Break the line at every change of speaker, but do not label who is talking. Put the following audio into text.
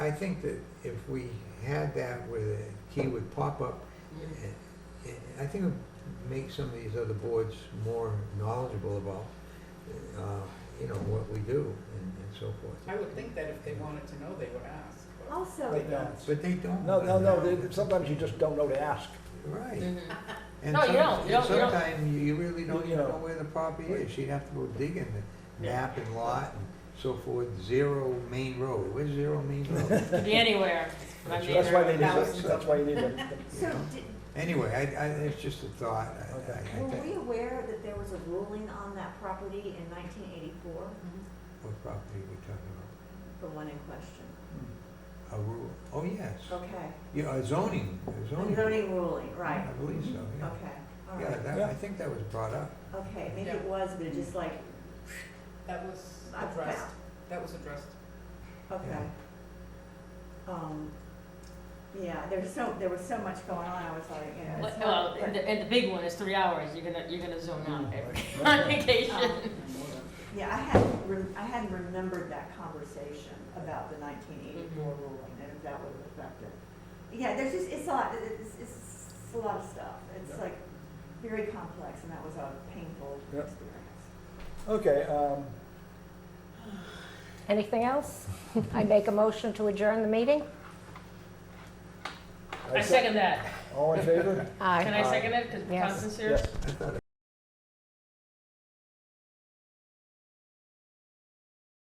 I think that if we had that where the key would pop up, it- it- I think it would make some of these other boards more knowledgeable about, uh, you know, what we do and and so forth.
I would think that if they wanted to know, they would ask. but
Also,
They don't.
But they don't.
No, no, no, they- sometimes you just don't know to ask.
Right. And
No, you
some-
don't, you don't, you don't.
Sometimes you really don't
You
even know
know.
where the property is. You'd have to go dig in the
Yeah.
map and lot and so forth. Zero Main Road. Where's Zero Main Road?
Could be anywhere. I mean,
That's why they need,
there are
a-
thousands.
that's why you need a,
so did,
Anyway, I, I, it's just a thought. I- I- I
were
think-
we aware that there was a ruling on that property in nineteen eighty-four,
What property are we talking
the one in question?
about? A rule, oh, yes.
Okay,
Yeah, a zoning, a
a
zoning.
zoning ruling,
I
right,
believe so, yeah.
okay, all
Yeah,
right,
that, I think that was brought up.
okay, maybe it was, but it just like,
That was
I
addressed, that was addressed.
Okay. Um, yeah, there's so, there was so much going on, I was like, you know, it's
Well,
not.
and the, and the big one is three hours, you're gonna, you're gonna zone out every-
Mm.
on vacation.
Um, Yeah, I hadn't, rem- I hadn't remembered that conversation about the nineteen eighty-four ruling and if that would have affected. Yeah, there's just, it's a lot, it's, it's a lot of stuff. It's
Yeah.
like very complex and that was a painful
Yeah.
experience.
okay, um,
Anything else? I make a motion to adjourn the meeting?
I second that.
All in favor?
Can I second it? Because
Yes.
Constance here?
Yes.
I thought it